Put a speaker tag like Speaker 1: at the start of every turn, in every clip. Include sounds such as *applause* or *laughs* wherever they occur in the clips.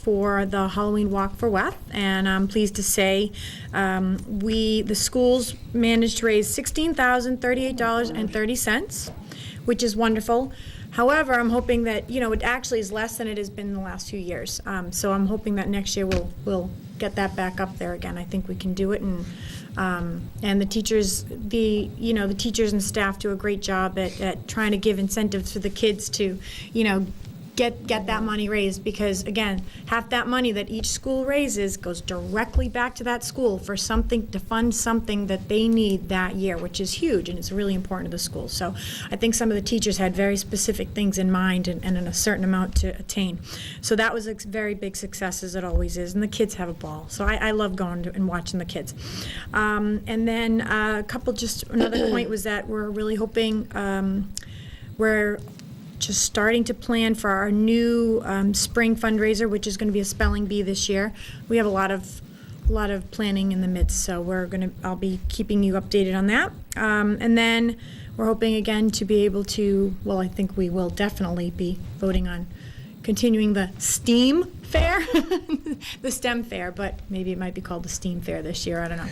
Speaker 1: for the Halloween Walk for Weth, and I'm pleased to say um, we, the schools managed to raise $16,038.30, which is wonderful. However, I'm hoping that, you know, it actually is less than it has been in the last few years. Um, So I'm hoping that next year we'll, we'll get that back up there again. I think we can do it, and, um, and the teachers, the, you know, the teachers and staff do a great job at, at trying to give incentives for the kids to, you know, get, get that money raised, because again, half that money that each school raises goes directly back to that school for something, to fund something that they need that year, which is huge, and it's really important to the school. So I think some of the teachers had very specific things in mind and, and in a certain amount to attain. So that was a very big success, as it always is, and the kids have a ball. So I, I love going to- and watching the kids. Um, and then uh, a couple, just another point was that we're really hoping, um, we're just starting to plan for our new um, spring fundraiser, which is going to be a spelling bee this year. We have a lot of a lot of planning in the midst, so we're going to. I'll be keeping you updated on that, um, and then we're hoping again to be able to. Well, I think we will definitely be voting on continuing the STEAM fair, *laughs* the STEM fair, but maybe it might be called the STEAM fair this year, I don't know.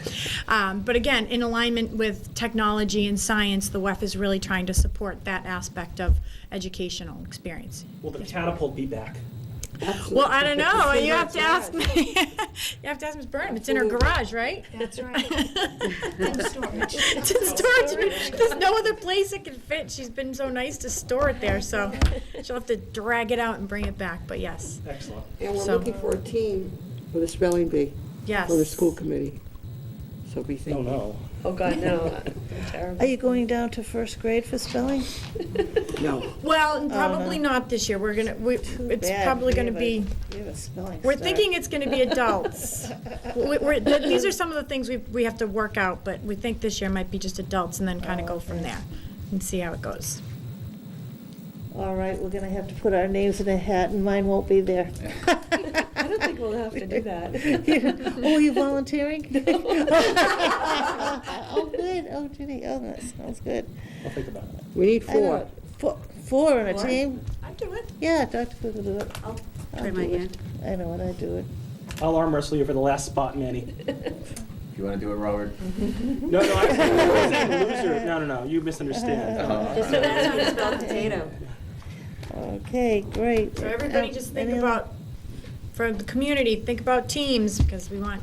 Speaker 1: Um, but again, in alignment with technology and science, the WEF is really trying to support that aspect of educational experience.
Speaker 2: Will the catapult be back?
Speaker 1: Well, I don't know, you have to ask, me. *laughs* you have to ask Ms. Burnham, it's in her garage, right?
Speaker 3: That's right.
Speaker 1: *laughs*
Speaker 3: *laughs*
Speaker 1: It's in storage, there's no other place it can fit, she's been so nice to store it there, so she'll have to drag it out and bring it back, but yes,
Speaker 2: Excellent.
Speaker 4: And we're
Speaker 1: So-
Speaker 4: looking for a team for the spelling bee,
Speaker 1: yes.
Speaker 4: for the school committee. So be
Speaker 2: No,
Speaker 4: thinking.
Speaker 2: no.
Speaker 3: Oh, God, no.
Speaker 5: Are you going down to first grade for spelling?
Speaker 4: No,
Speaker 1: Well, probably not this year. We're gonna, we, it's
Speaker 5: Bad,
Speaker 1: probably
Speaker 5: we
Speaker 1: gonna
Speaker 5: have a-
Speaker 1: be,
Speaker 5: We have a spelling
Speaker 1: we're
Speaker 5: star.
Speaker 1: thinking it's gonna be
Speaker 5: *laughs*
Speaker 1: adults. We- We're, th- these are some of the things we, we have to work out, but we think this year might be just adults and then kinda
Speaker 5: Oh,
Speaker 1: go from
Speaker 5: okay.
Speaker 1: there and see how it goes.
Speaker 5: All right, we're gonna have to put our names in a hat and mine won't be there.
Speaker 3: I don't think we'll have to do that.
Speaker 5: Oh, *laughs*
Speaker 1: *laughs*
Speaker 5: you volunteering?
Speaker 3: No.
Speaker 5: *laughs* Oh, good, oh, Judy, oh, that sounds good.
Speaker 2: I'll think about it.
Speaker 4: we need
Speaker 5: I don't
Speaker 4: four.
Speaker 5: know, Four, four on a
Speaker 3: Four?
Speaker 5: team?
Speaker 1: I do it.
Speaker 5: Yeah, Dr. Cook will do it.
Speaker 3: I'll
Speaker 5: I'll
Speaker 4: try
Speaker 5: do
Speaker 4: my
Speaker 5: it.
Speaker 4: hand.
Speaker 5: I know what I do it.
Speaker 2: I'll arm wrestle you for the last spot, Manny.
Speaker 3: *laughs*
Speaker 6: If you want to do it, Robert.
Speaker 2: No, no, I I said loser. Uh-huh. No, no, no, you misunderstand.
Speaker 5: *laughs*
Speaker 6: Uh,
Speaker 3: Just know that's how to spell potato.
Speaker 5: Okay, great.
Speaker 1: So everybody
Speaker 5: Um,
Speaker 1: just think
Speaker 5: any other-
Speaker 1: about, for the community, think about teams, because we want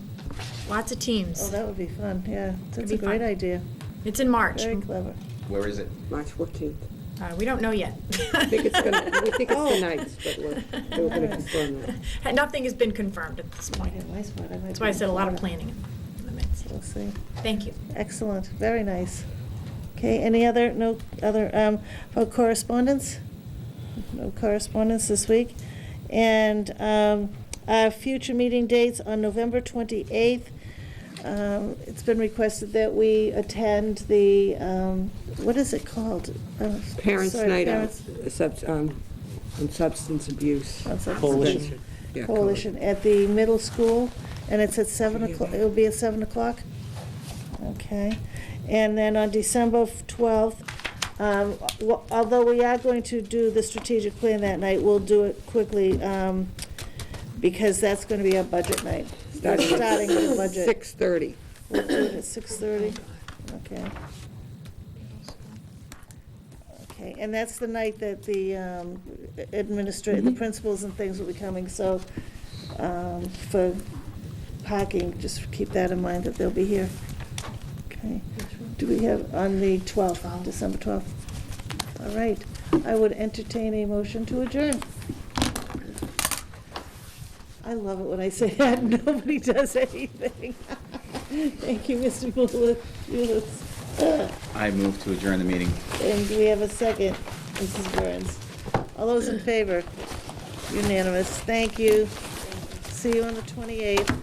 Speaker 1: lots of
Speaker 5: Oh,
Speaker 1: teams.
Speaker 5: that would be fun, yeah, that's
Speaker 1: be
Speaker 5: a great
Speaker 1: fun.
Speaker 5: idea,
Speaker 1: It's in March.
Speaker 5: very clever.
Speaker 6: Where is it?
Speaker 4: March 14th.
Speaker 1: Uh, we don't know yet.
Speaker 4: I think it's gonna, we
Speaker 1: *laughs*
Speaker 4: think it's the ninth, but we're, we're gonna confirm that.
Speaker 1: Nothing has been confirmed at this point.
Speaker 5: Yeah, my spot, I might
Speaker 1: That's
Speaker 5: be
Speaker 1: why I
Speaker 5: in
Speaker 1: said a lot of
Speaker 5: Florida.
Speaker 1: planning in the midst.
Speaker 5: We'll see.
Speaker 1: Thank you.
Speaker 5: Excellent, very nice. Okay, any other, no other, um, oh, correspondence? No correspondence this week. And, um, our future meeting dates on November twenty-eighth. Um, it's been requested that we attend the, um, what is it called? Uh,
Speaker 4: Parents'
Speaker 5: sorry,
Speaker 4: night out,
Speaker 5: Parents-
Speaker 4: subs- um, on substance abuse.
Speaker 5: on substance
Speaker 2: Coalition.
Speaker 5: abuse.
Speaker 4: Yeah, coal-
Speaker 5: Coalition at the middle school, and it's at seven
Speaker 4: Yeah.
Speaker 5: o'clock, it'll be at seven o'clock? Okay, and then on December twelfth, um, wa- although we are going to do the strategic plan that night, we'll do it quickly, um, because that's gonna be our budget night. We're
Speaker 4: Starting
Speaker 5: Starting the
Speaker 4: at
Speaker 5: budget,
Speaker 4: 6:30.
Speaker 5: we'll do it at six thirty, okay. Okay, and that's the night that the um, administrator, the principals and things will be coming, so um, for parking, just keep that in mind that they'll be here. Okay. Do we have, on the 12th, December 12th? All right, I would entertain a motion to adjourn. I love it when I say that, *laughs* nobody does anything. *laughs* Thank you, Mr. Mullis. Mullis.
Speaker 6: I move to adjourn the meeting.
Speaker 5: And do we have a second, Mrs. Burns? All those in favor? Unanimous, thank you. See you on the 28th.